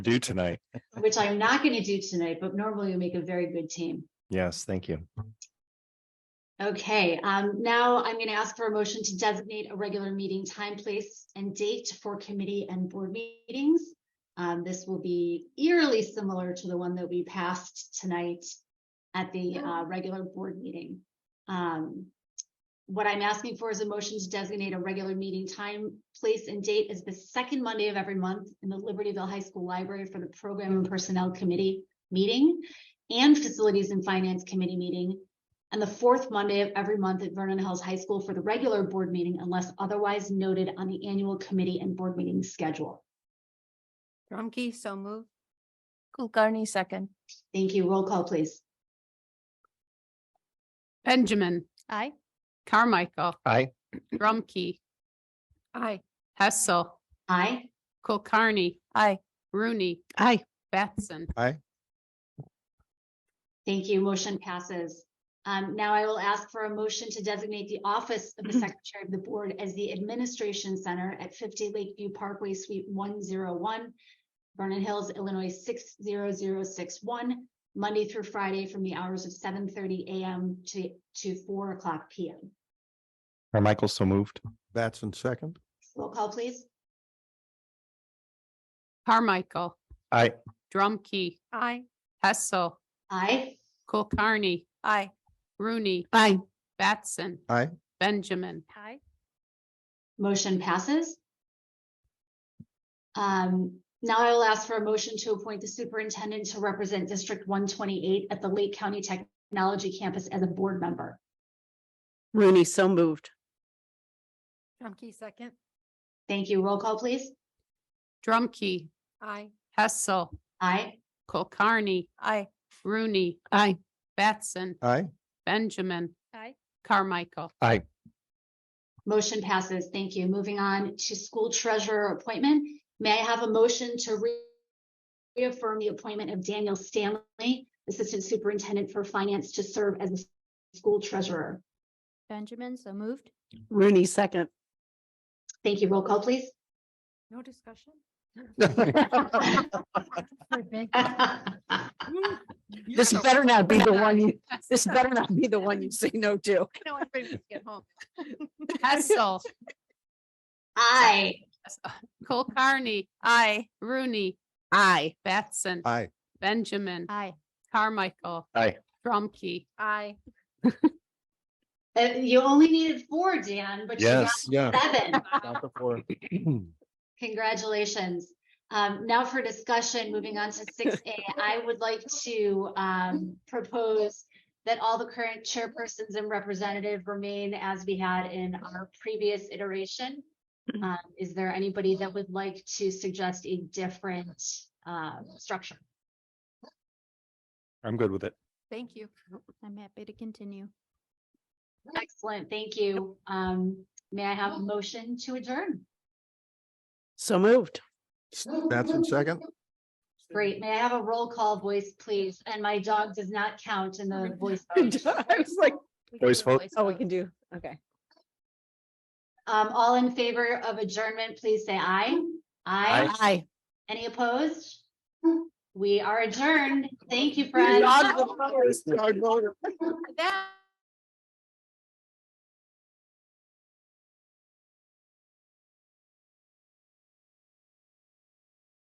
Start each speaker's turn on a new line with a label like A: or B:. A: do tonight.
B: which I'm not going to do tonight, but normally we make a very good team.
A: Yes, thank you.
B: Okay, um, now I'm going to ask for a motion to designate a regular meeting time, place, and date for committee and board meetings. Um, this will be eerily similar to the one that we passed tonight at the, uh, regular board meeting. Um, what I'm asking for is a motion to designate a regular meeting time, place, and date as the second Monday of every month in the Libertyville High School Library for the Program and Personnel Committee meeting and Facilities and Finance Committee meeting and the fourth Monday of every month at Vernon Hills High School for the regular board meeting unless otherwise noted on the annual committee and board meeting schedule.
C: Drumkey, so move. Kulkarni, second.
B: Thank you. Roll call, please.
D: Benjamin,
C: Aye.
D: Carmichael,
A: Aye.
D: Drumkey,
C: Aye.
D: Hessel,
B: Aye.
D: Kulkarni,
C: Aye.
D: Rooney. Aye. Batson,
B: Thank you. Motion passes. Um, now I will ask for a motion to designate the office of the Secretary of the Board as the Administration Center at fifty Lakeview Parkway Suite one zero one, Vernon Hills, Illinois six zero zero six one, Monday through Friday from the hours of seven thirty AM to, to four o'clock PM.
A: Carmichael, so moved.
E: Batson second.
B: Roll call, please.
D: Carmichael,
A: Aye.
D: Drumkey,
C: Aye.
D: Hessel,
B: Aye.
D: Kulkarni,
C: Aye.
D: Rooney. Aye. Batson.
E: Aye.
D: Benjamin,
C: Aye.
B: Motion passes. Um, now I will ask for a motion to appoint the superintendent to represent District one twenty-eight at the Lake County Technology Campus as a board member.
F: Rooney, so moved.
C: Drumkey, second.
B: Thank you. Roll call, please.
D: Drumkey,
C: Aye.
D: Hessel,
B: Aye.
D: Kulkarni,
C: Aye.
D: Rooney. Aye. Batson,
E: Aye.
D: Benjamin,
C: Aye.
D: Carmichael,
A: Aye.
B: Motion passes. Thank you. Moving on to school treasurer appointment. May I have a motion to re- reaffirm the appointment of Daniel Stanley, Assistant Superintendent for Finance, to serve as the school treasurer?
C: Benjamin, so moved.
F: Rooney, second.
B: Thank you. Roll call, please.
C: No discussion?
F: This better not be the one you, this better not be the one you say no to.
D: Hessel,
B: Aye.
D: Kulkarni,
C: Aye.
D: Rooney,
F: Aye.
D: Batson,
E: Aye.
D: Benjamin,
C: Aye.
D: Carmichael.
A: Aye.
D: Drumkey,
C: Aye.
B: Uh, you only needed four, Dan, but you got
A: Yes.
E: Yeah.
B: seven.
A: Aye.
B: Congratulations. Um, now for discussion, moving on to six A, I would like to, um, propose that all the current chairpersons and representative remain as we had in our previous iteration. Um, is there anybody that would like to suggest a different, uh, structure?
A: I'm good with it.
C: Thank you. I'm happy to continue.
B: Excellent, thank you. Um, may I have a motion to adjourn?
F: So moved.
E: Batson second.
B: Great. May I have a roll call voice, please? And my dog does not count in the voice.
F: I was like,
A: Voice vote.
F: oh, we can do, okay.
B: Um, all in favor of adjournment, please say aye. Aye.
F: Aye.
B: Any opposed? We are adjourned. Thank you,
F: You're
B: friends.
F: on the first, our voter.
C: That.